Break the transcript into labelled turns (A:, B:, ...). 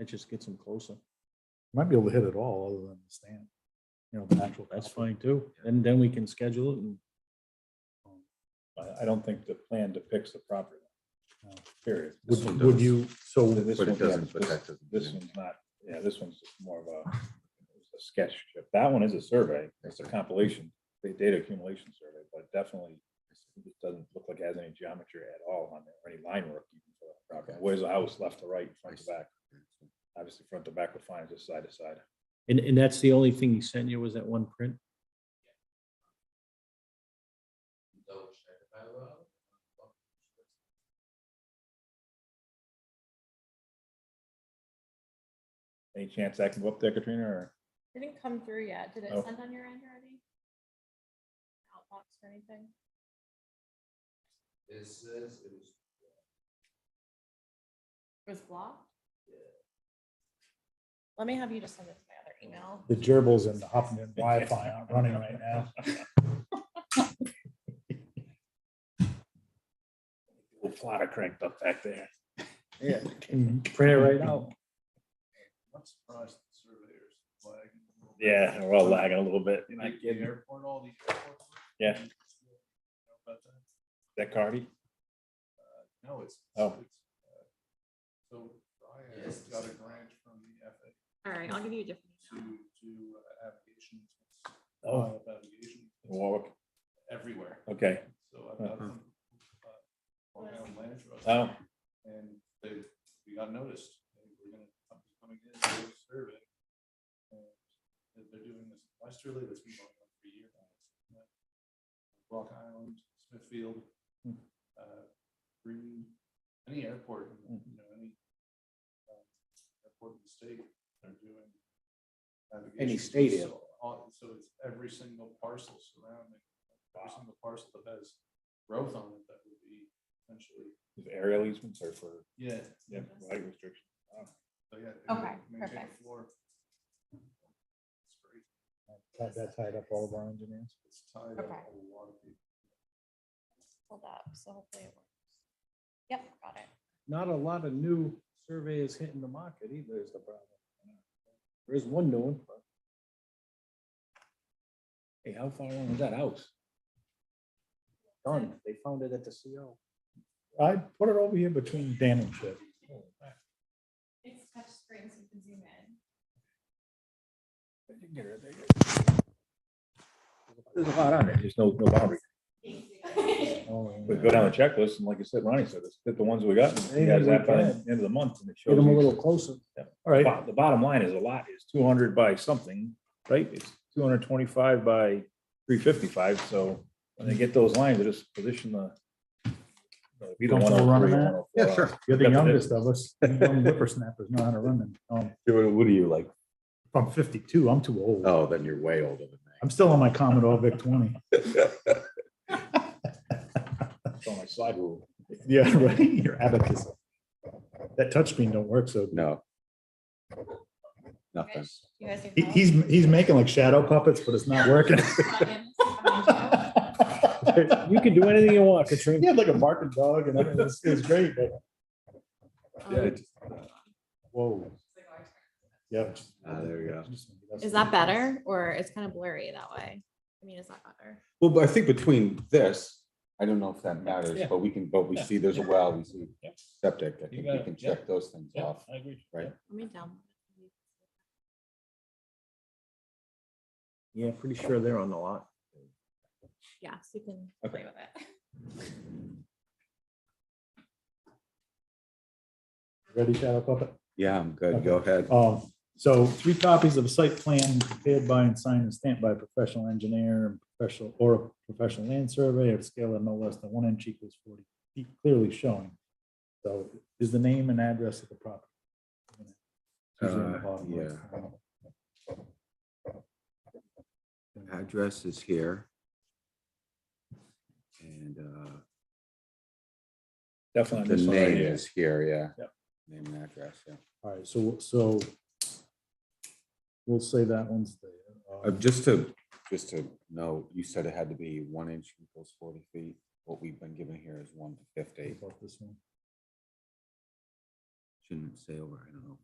A: It just gets them closer.
B: Might be able to hit it all other than the stand. You know, the natural.
A: That's
B: copper.
A: fine too. And then we can schedule it and
C: um, I, I don't think the plan depicts the property. line, uh, Period. This one
B: Would, would
C: does.
B: you, so,
C: This
D: But it
C: one- yeah,
D: doesn't, but
C: this-
D: that doesn't.
C: This one's not, yeah, this one's just more of a a sketch. strip. That one is a survey. It's a compilation, the data accumulation survey, but definitely it doesn't look like it has any geometry at all on there, or any line work. even for that property.
D: Okay.
C: Where's the house, left to right, front to
D: I see.
C: back? Obviously, front to back defines it side to side.
A: And, and that's the only thing he sent you was that one print?
C: Any chance that can go up there, Katrina, or?
E: Didn't come through yet. Did it
C: Oh.
E: send on your end already? Outbox or anything?
F: This is, it was,
E: It was blocked? Let me have you just send it to my other email.
B: the gerbils and the Hoffman Wi-Fi aren't running right now.
C: Little plotter cranked up back there.
B: Yeah.
A: Mm-hmm.
B: Print it right out.
F: I'm surprised the surveyors lagging. a little bit.
C: Yeah, we're all lagging a little bit.
F: Like the airport, all these airports.
C: Yeah.
F: uh, About that.
C: That Cardi?
F: Uh, No, it's.
C: Oh.
F: it's, uh, So I has got a grant from the FAA
E: All right, I'll give you a different.
F: to do uh, applications.
C: Oh.
F: file Applications
C: Warwick,
F: everywhere.
C: okay.
F: So I've got
C: Uh-huh.
F: some. uh, Long Island Land Trust.
C: Oh,
F: And they, we got noticed, they were gonna, something's coming in, they were surveying. And they're, they're doing this westerly, that's been going on for a year now. uh, Rock Island, Smithfield,
C: Hmm.
F: uh, Green, any airport, you know, any uh, airport in the state, they're doing. navigations.
B: state
F: So
B: airport.
F: all- So it's every single parcel surrounding, every single parcel that has growth on it, that would be essentially,
C: is aerial easements are for,
F: yeah,
C: yeah, light restriction.
F: so yeah. it would
E: Okay,
F: maintain the
E: perfect.
F: floor. It's great.
B: Had that tied up all of our engineers.
F: It's tied up
E: Okay.
F: a lot of people.
E: Hold up, so hopefully it works. Yep, got it.
A: Not a lot of new surveys hitting the market either is the problem. There is one new one. but- Hey, how far along is that house? Done. They found it at the CO.
B: I put it over here between Dan and Chip.
E: It's touch screen, so you can zoom in.
C: There's a lot on it. There's no, no boundary.
B: Oh, yeah.
C: But go down the checklist, and like you said, Ronnie said, let's get the ones we got.
B: Maybe
C: You guys
B: we
C: have by the
B: can.
C: end of the month, and it
A: Get
C: shows.
A: them a
C: you-
A: little closer.
B: All right,
C: bo- The bottom line is a lot is two hundred by something, right? It's two hundred twenty-five by three fifty-five, so when they get those lines, they just position the. Be the one
B: Comfortable
C: oh
B: running
C: three,
B: that?
C: one oh four.
D: Yeah, sure.
B: you're the
C: Got the
B: youngest of us. You Young whippersnappers know how to run them. Um,
D: What are you like?
B: I'm fifty-two, I'm too old.
D: Oh, then you're way older than me.
B: I'm still on my Commodore VIC twenty.
C: It's on my slide rule.
B: Yeah, right, your abacus. That touchscreen don't work, so
D: No.
E: You
D: Nothing.
E: guys- you guys need
B: he,
E: help?
B: he's, he's making like shadow puppets, but it's not working.
E: Buttons, buttons, yeah.
A: You can do anything you want, Katrina.
B: He had like a barking dog and everything. It was, it was great, but
D: Yeah,
E: Um,
D: it's-
B: whoa, yeah.
D: Ah, there you go.
E: Is that better or it's kind of blurry that way? I mean, is that better?
D: Well, but I think between this, I don't know if that matters,
C: Yeah.
D: but we can, but we see there's a well, we see
C: Yeah.
D: septic. I think
C: got
D: we
C: it.
D: can
C: Yeah.
D: check those things
C: Yeah,
D: off.
C: I agree.
D: Right.
E: Let me down.
A: Yeah, pretty sure they're on the lot.
E: Yeah, so you can play with it.
B: Ready, shadow puppet?
D: Yeah, I'm good. Go ahead.
B: Um, so three copies of a site plan prepared by and signed and stamped by a professional engineer and professional or a professional land survey of scale of no less than one inch equals forty feet clearly showing. So is the name and address of the property? Usually in the
D: Uh,
B: bottom left.
D: Address is here. And uh,
C: Definitely.
D: the
C: on this one right
D: name
C: here.
D: is here, yeah.
C: Yep.
D: Name and address, yeah.
B: All right, so, so we'll say that one's
D: Uh,
B: there. Um,
D: just to, just to know, you said it had to be one inch equals forty feet. What we've been given here is one fifty.
B: about this one.
D: Shouldn't say over, I don't know,